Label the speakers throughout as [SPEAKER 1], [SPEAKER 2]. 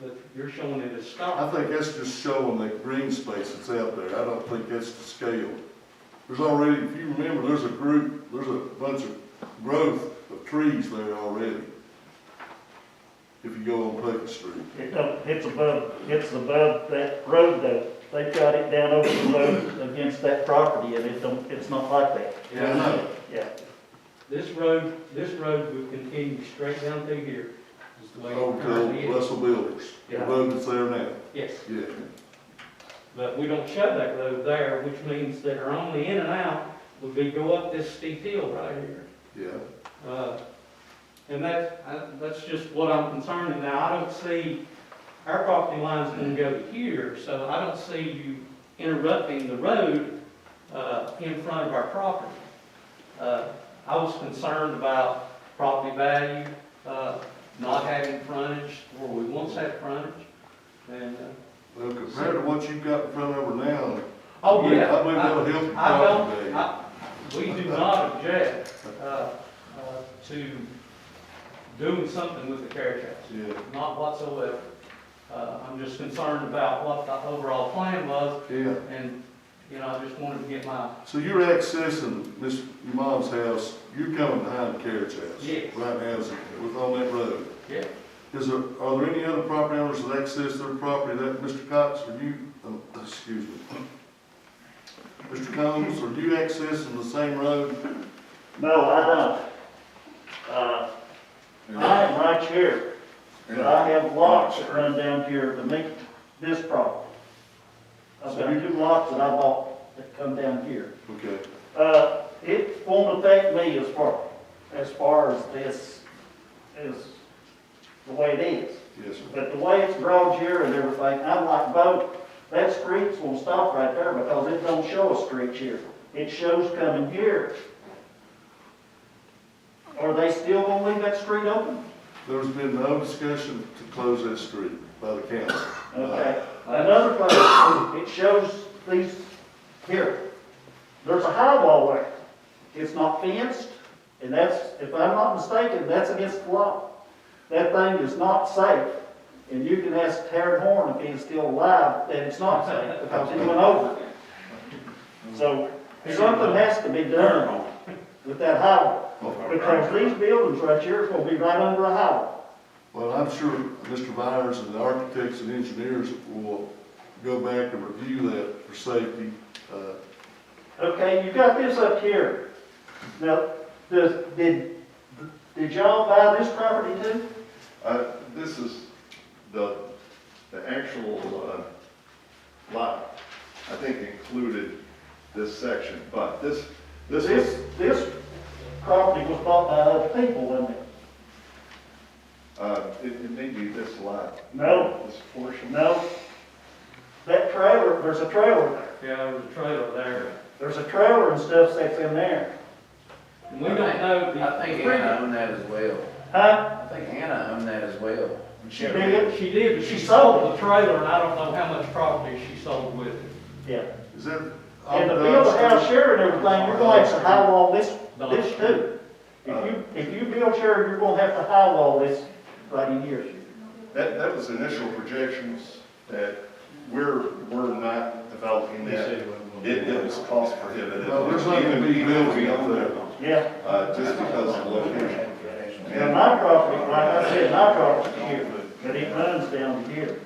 [SPEAKER 1] that you're showing it as
[SPEAKER 2] I
[SPEAKER 1] stop.
[SPEAKER 2] think that's just showing that green space that's out there. I don't think that's the scale. There's already, if you remember, there's a group, there's a bunch of growth of trees there already. If you go on Pleasant Street.
[SPEAKER 3] It don't, it's above, it's above that road though. They've got it down over the road against that property and it don't, it's not like that.
[SPEAKER 2] Yeah, I know.
[SPEAKER 3] Yeah.
[SPEAKER 1] This road, this road would continue straight down through here. is the way it
[SPEAKER 2] Over
[SPEAKER 1] currently
[SPEAKER 2] to
[SPEAKER 1] is.
[SPEAKER 2] Russell Builders, the
[SPEAKER 1] Yeah.
[SPEAKER 2] road that's there now,
[SPEAKER 1] Yes,
[SPEAKER 2] yeah.
[SPEAKER 1] but we don't show that road there, which means that our only in and out would be go up this steep hill right here.
[SPEAKER 2] Yeah,
[SPEAKER 1] Uh, And that, I- that's just what I'm concerned in now. I don't see, our property line's gonna go to here, so I don't see you interrupting the road uh, in front of our property. Uh, I was concerned about property value, uh, not having frontage where we once had frontage. And, uh,
[SPEAKER 2] well, compared to what you've got in front of her now.
[SPEAKER 1] oh, yeah.
[SPEAKER 2] I believe that'll help your
[SPEAKER 1] I don't-
[SPEAKER 2] property value.
[SPEAKER 1] I- We do not object uh, uh, to doing something with the carriage house,
[SPEAKER 2] Yeah,
[SPEAKER 1] not whatsoever. Uh, I'm just concerned about what the overall plan was,
[SPEAKER 2] yeah.
[SPEAKER 1] and, you know, I just wanted to get my,
[SPEAKER 2] So you're accessing Miss, your mom's house, you're coming behind the carriage house?
[SPEAKER 1] Yes.
[SPEAKER 2] Right now, is it- with on that road.
[SPEAKER 1] yeah.
[SPEAKER 2] Is there, are there any other property owners that access their property that, Mr. Cox, or you, um, excuse me? Mr. Combs, are you accessing the same road?
[SPEAKER 3] No, I don't. Uh, I am right here, but I have lots that run down here to meet this property. I've got two lots that I bought that come down here.
[SPEAKER 2] Okay,
[SPEAKER 3] Uh, it won't affect me as far, as far as this is the way it is.
[SPEAKER 2] yes, sir.
[SPEAKER 3] But the way it's drawn here and everything, I'm like, Bo, that street's gonna stop right there because it don't show a street here. It shows coming here. Are they still gonna leave that street open?
[SPEAKER 2] There's been no discussion to close that street by the council.
[SPEAKER 3] Okay. Another place, it shows these here. There's a high wall there. It's not fenced, and that's, if I'm not mistaken, that's against the law. That thing is not safe. And you can ask Terry Horn if he's still alive, that it's not safe because he went over it. So something has to be done with that highway. Because these buildings right here is gonna be right under a highway.
[SPEAKER 2] Well, I'm sure Mr. Byers and the architects and engineers will go back and review that for safety. Uh,
[SPEAKER 3] Okay, you got this up here. Now, does, did, did y'all buy this property too?
[SPEAKER 4] Uh, This is the, the actual uh, lot, I think included this section, but this, this
[SPEAKER 3] This,
[SPEAKER 4] is,
[SPEAKER 3] this property was bought by other people, wasn't it?
[SPEAKER 4] uh, it it may be this lot.
[SPEAKER 3] No.
[SPEAKER 4] This portion.
[SPEAKER 3] No. That trailer, there's a trailer there.
[SPEAKER 1] Yeah, there was a trailer there.
[SPEAKER 3] There's a trailer and stuff that's in there.
[SPEAKER 1] And we don't know. the-
[SPEAKER 5] I think uh, Hannah owned that as well.
[SPEAKER 3] Huh?
[SPEAKER 5] I think Hannah owned that as well.
[SPEAKER 3] She did?
[SPEAKER 1] She did, but she sold the trailer, and I don't know how much property she sold with it.
[SPEAKER 3] Yeah.
[SPEAKER 2] Is that?
[SPEAKER 3] And the build a house here and everything, you're gonna have to high wall this, this too. If you, if you build here, you're gonna have to high wall this right in here.
[SPEAKER 4] That, that was initial projections that we're, we're not developing that. It it was cost prohibitive.
[SPEAKER 2] Well, there's not gonna be building up there.
[SPEAKER 3] Yeah.
[SPEAKER 4] Uh, Just because of the location.
[SPEAKER 3] Yeah, my property, like I said, my property here, but it runs down here.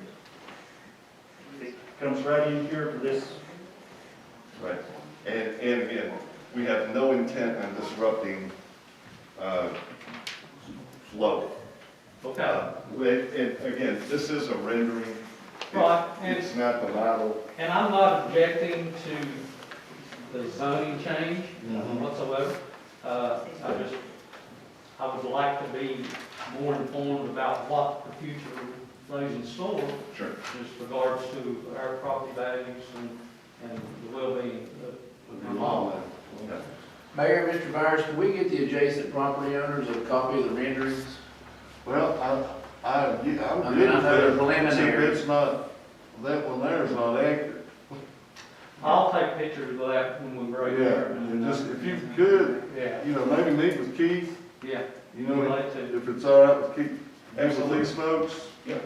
[SPEAKER 3] It Comes right in here for this,
[SPEAKER 4] Right, and, and again, we have no intent on disrupting, uh, flow. Uh, And, and again, this is a rendering.
[SPEAKER 1] Right, and-
[SPEAKER 4] It's not the model.
[SPEAKER 1] And I'm not objecting to the zoning change
[SPEAKER 2] Mm-hmm.
[SPEAKER 1] whatsoever. Uh, I just, I would like to be more informed about what the future lays in store
[SPEAKER 4] Sure.
[SPEAKER 1] as regards to our property values and, and the well-being of my mom.
[SPEAKER 5] Mayor, Mr. Byers, can we get the adjacent property owners a copy of the renderings?
[SPEAKER 2] Well, I, I, yeah,
[SPEAKER 5] I
[SPEAKER 2] I'm
[SPEAKER 5] mean,
[SPEAKER 2] good with
[SPEAKER 5] I know they're
[SPEAKER 2] that,
[SPEAKER 5] preliminary.
[SPEAKER 2] except it's not, that one there is not accurate.
[SPEAKER 1] I'll take pictures of that when we break
[SPEAKER 2] Yeah,
[SPEAKER 1] there.
[SPEAKER 2] and just, if you could,
[SPEAKER 1] Yeah,
[SPEAKER 2] you know, maybe meet with Keith,
[SPEAKER 1] yeah.
[SPEAKER 2] you
[SPEAKER 1] We'd
[SPEAKER 2] know,
[SPEAKER 1] like to.
[SPEAKER 2] if it's all right with Keith, absolutely smokes.
[SPEAKER 4] Yeah.